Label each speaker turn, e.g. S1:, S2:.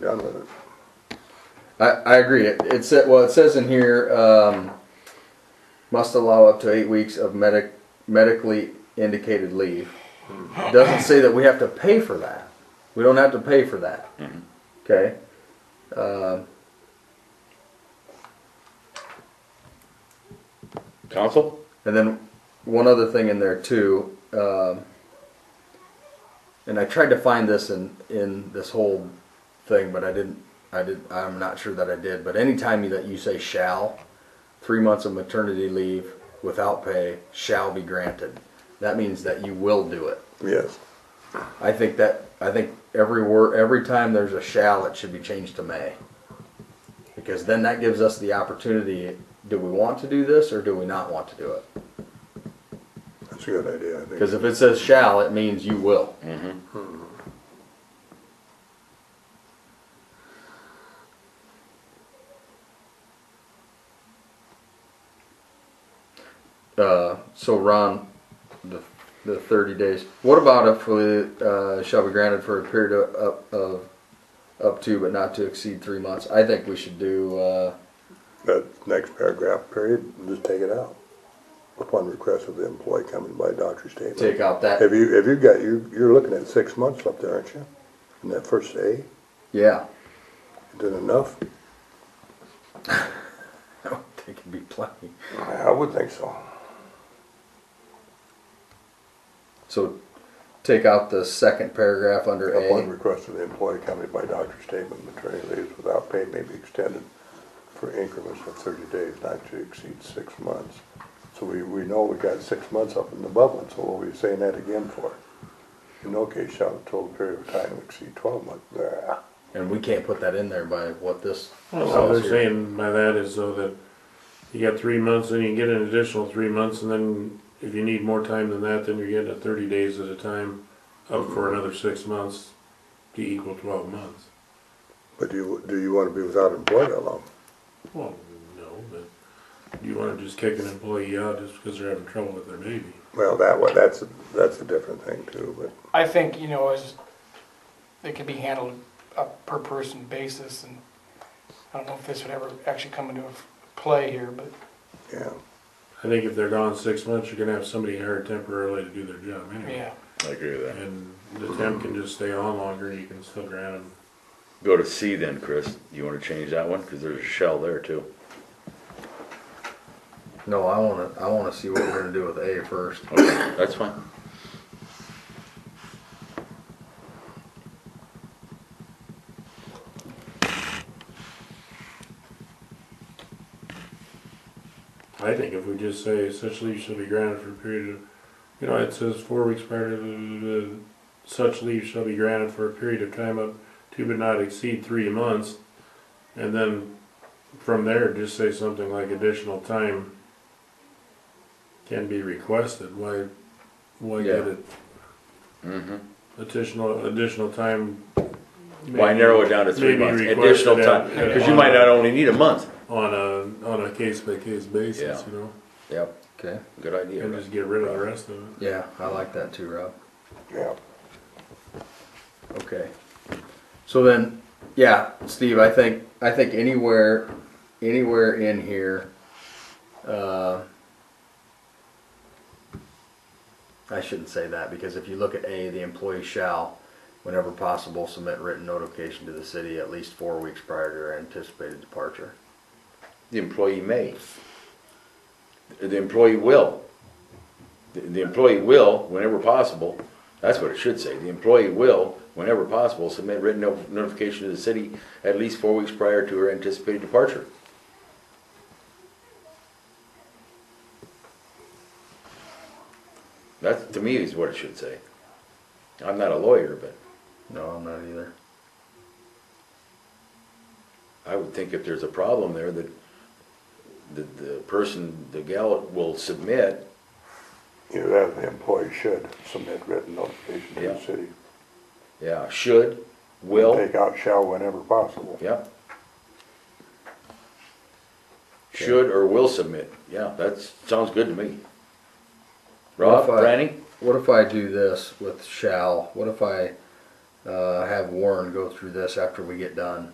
S1: done with it.
S2: I, I agree. It, it said, well, it says in here, um, must allow up to eight weeks of medic, medically indicated leave. It doesn't say that we have to pay for that. We don't have to pay for that. Okay? Um
S3: Council?
S2: And then one other thing in there too, um, and I tried to find this in in this whole thing, but I didn't. I did. I'm not sure that I did. But anytime you- that you say shall, three months of maternity leave without pay shall be granted. That means that you will do it.
S1: Yes.
S2: I think that I think every word every time there's a shall it should be changed to may. Because then that gives us the opportunity, do we want to do this or do we not want to do it?
S1: That's a good idea, I think.
S2: Because if it says shall, it means you will. Mm-hmm. Uh, so Ron, the, the thirty days, what about if we, uh, shall be granted for a period of, up- of, up to but not to exceed three months? I think we should do, uh,
S1: That next paragraph period, just take it out. Upon request of the employee coming by doctor's statement.
S2: take out that,
S1: Have you, have you got, you, you're looking at six months up there, aren't you? In that first A, is
S2: yeah.
S1: that enough?
S2: I don't think it'd be plenty.
S1: I would think so.
S2: So take out the second paragraph under
S1: Upon
S2: A.
S1: request of the employee coming by doctor's statement, maternity leaves without pay may be extended for increments of thirty days, not to exceed six months. So we, we know we got six months up in the bubble, so what are we saying that again for? In no case shall the total period of time exceed twelve months. Blah.
S2: And we can't put that in there by what this.
S4: Well, what
S2: says
S4: they're
S2: here.
S4: saying by that is though that you got three months, then you get an additional three months, and then if you need more time than that, then you're getting a thirty days at a time up for another six months to equal twelve months.
S1: But do you, do you wanna be without employment that long?
S4: Well, no, but you wanna just kick an employee out just because they're having trouble with their baby.
S1: Well, that one, that's, a- that's a different thing too, but.
S5: I think, you know, as, it could be handled a per person basis and I don't know if this would ever actually come into play here, but
S1: Yeah,
S4: I think if they're gone six months, you're gonna have somebody hired temporarily to do their job anyway.
S5: yeah.
S3: I agree with that.
S4: And the temp can just stay on longer, and you can still grant them
S3: Go to C then, Chris. You wanna change that one? Cause there's a shell there too.
S2: No, I wanna, I wanna see what we're gonna do with A first.
S3: Okay, that's fine.
S4: I think if we just say such leave shall be granted for a period of, you know, it says four weeks prior to the- the- such leave shall be granted for a period of time up to but not exceed three months. And then from there, just say something like additional time can be requested. Why, why get
S2: Yeah.
S4: it
S3: Mm-hmm.
S4: additional, additional time?
S3: Why narrow it down to three
S4: Maybe
S3: months?
S4: requested
S3: Additional
S4: at-
S3: time,
S4: at-
S3: cause you might not only need a month.
S4: On a, on a case by case basis,
S3: Yeah.
S4: you know,
S3: Yep,
S2: Okay,
S3: good idea.
S4: and
S3: Russ.
S4: just get rid of the rest of it.
S2: yeah, I like that too, Rob.
S1: yeah.
S2: Okay. So then, yeah, Steve, I think, I think anywhere, anywhere in here, uh, I shouldn't say that, because if you look at A, the employee shall, whenever possible, submit written notification to the city at least four weeks prior to their anticipated departure.
S3: The employee may. The employee will. The- The employee will, whenever possible, that's what it should say, the employee will, whenever possible, submit written no- notification to the city at least four weeks prior to her anticipated departure. That, to me, is what it should say. I'm not a lawyer, but
S2: No, I'm not either.
S3: I would think if there's a problem there, that, that the person, the gal will submit
S1: Either that or the employee should submit written notification to the
S3: Yeah.
S1: city.
S3: Yeah, should, will,
S1: Take out shall whenever possible.
S3: yeah. Should or will submit, yeah, that sounds good to me. Rob,
S2: What if I-
S3: Franny,
S2: What if I do this with shall? What if I uh, have Warren go through this after we get done.